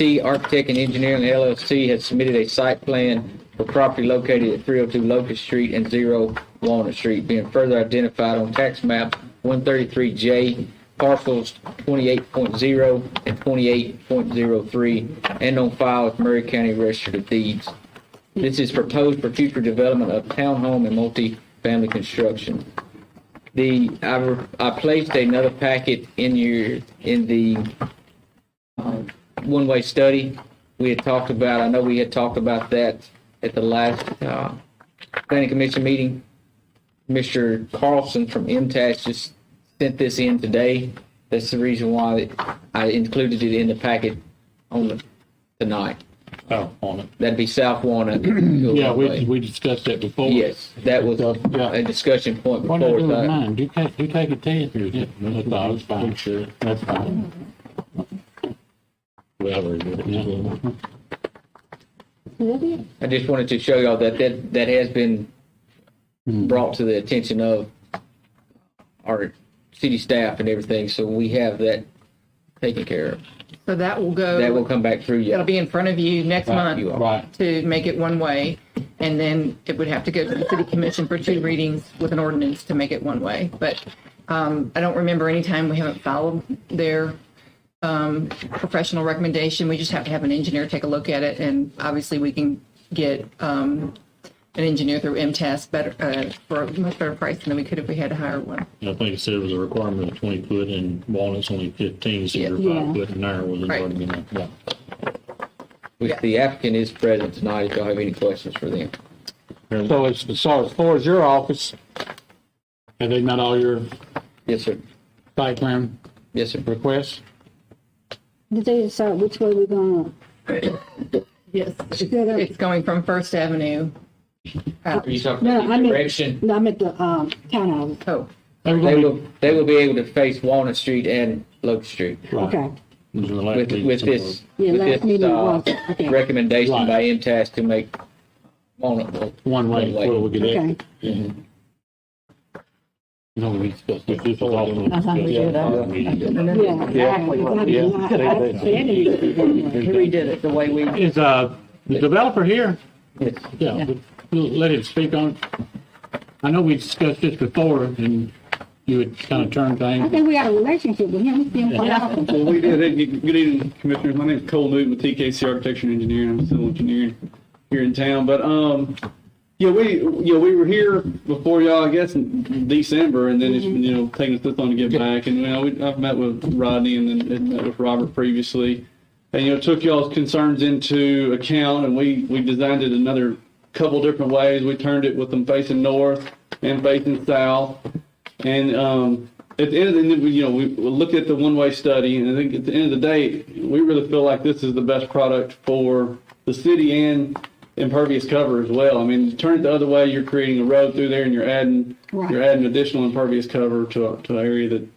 C Architect and Engineering LLC has submitted a site plan for property located at 302 Locust Street and 0 Walnut Street, being further identified on tax map 133J, parcels 28.0 and 28.03, and on file with Murray County Register of Deeds. This is proposed for future development of townhome and multifamily construction. The, I, I placed another packet in your, in the um, one-way study. We had talked about, I know we had talked about that at the last uh, planning commission meeting. Mr. Carlson from MTAS just sent this in today. That's the reason why I included it in the packet on the, tonight. Oh, on it. That'd be South Walnut. Yeah, we, we discussed that before. Yes, that was Yeah. a discussion point What do I before. do with that. mine? Do you take, do you take it to you? That's all, it's fine. Sure. That's fine. Yeah. I just wanted to show y'all that that, that has been Hmm. brought to the attention of our city staff and everything, so we have that taken care of. So that will go. That will come back through That'll you. be in front of you next month you all. Right. to make it one way. And then it would have to go to the city commission for two readings with an ordinance to make it one way. But um, I don't remember any time we haven't followed their um, professional recommendation. We just have to have an engineer take a look at it. And obviously, we can get um, an engineer through MTS better, uh, for a much better price than we could if we had to hire one. I think it said it was a requirement of twenty foot and Walnut's only fifteen, so your Yeah. five foot and there was Right. already in Yeah. If the applicant is present tonight, if y'all have any questions for them. So as, as far as far as your office, have they met all your Yes, sir. site plan Yes, sir. requests? Did they decide which way we're gonna, Yes. Yeah, that- It's going from First Avenue. out. Are you talking No, about the I mean- direction? no, I meant the, um, townhouse, Oh, They were They gonna will, they will be able to face Walnut Street and Locust Street be- right. okay. It was in the last with, meeting with somewhere. this, Yeah, last with this, meeting was, uh, okay. recommendation Right. by MTS to make Walnut. One way, One way. where we could Okay. exit. Mm-hmm. No, we discussed this. This was I all. thought Uh-huh, we did that. Yeah. Yeah, exactly. I mean, I- I don't see any reason why. we did it the way we. Is, uh, the developer here? Yes. Yeah, but we'll let him speak on. it. I know we discussed this before and you had kind of turned I things. think we got a relationship with him, we see him quite often. Well, we did. Hey, Good good evening, Commissioners. My name is Cole Newton with TKC Architecture and Engineering. I'm civil engineer here in town. But, um, yeah, we, yeah, we were here before y'all, I guess, in December, and then it's, you know, taking us this long to get back. And, you know, we, I've met with Rodney and then and met with Robert previously. And, you know, took y'all's concerns into account, and we, we designed it another couple different ways. We turned it with them facing north and facing south. And um, at the end of the, you know, we looked at the one-way study, and I think at the end of the day, we really feel like this is the best product for the city and impervious cover as well. I mean, turn it the other way, you're creating a road through there, and you're adding Right. you're adding additional impervious cover to to an area that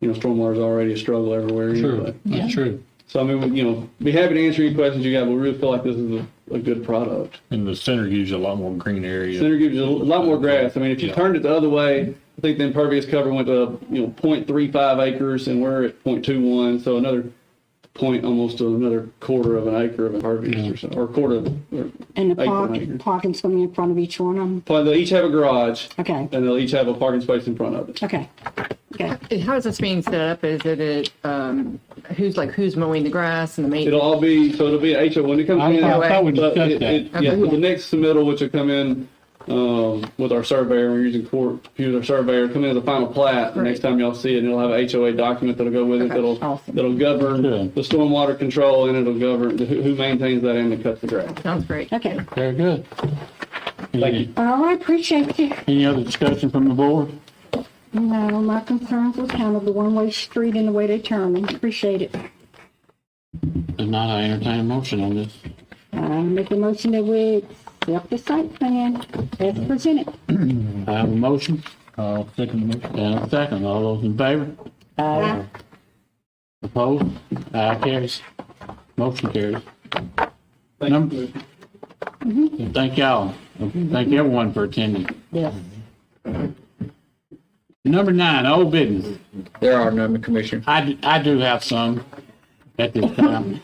you know stormwater is already a struggle everywhere. True, anyway. that's true. So I mean, we- you know, be happy to answer any questions you have. but We really feel like this is a, a good product. And the center gives you a lot more green area. Center gives you a lot more grass. I mean, if you Yeah. turned it the other way, I think the impervious cover went to, you know, point three five acres and we're at point two one, so another point, almost another quarter of an acre of impervious or so, or quarter of, or, And the Acre, park, acre. parking's gonna be in front of each one of them, but they'll each have a garage okay, and they'll each have a parking space in front of it. okay, okay. How is this being set up? Is it, a, um, who's like, who's mowing the grass and the It'll maintenance? all be, so it'll be HO when it comes I in. I thought we But discussed it, that. it, yeah, for the next submittal, which will come in, um, with our surveyor, we're using court, use our surveyor, come in as a final plat. The next Right. time y'all see it, and it'll have a HOA document that'll go with it, Okay, that'll, awesome. that'll govern Yeah. the stormwater control, and it'll govern the- who, who maintains that and who cuts the grass. Sounds great. Okay, Very good. Any, all right, appreciate you. any other discussion from the board? No, my concerns was kind of the one-way street and the way they turn them, appreciate it. If not, I entertain a motion on this. I Uh, make a motion that we accept the site plan as presented. I have a motion I'll second the motion. and a second. All those in favor? Aye. Opposed? Aye, carries. Motion carries. Thank you, Number- Mm-hmm. Commissioner. Thank y'all. Thank everyone for attending. Yes. Number nine, old business. There are none, Commissioner. I, d- I do have some at this time.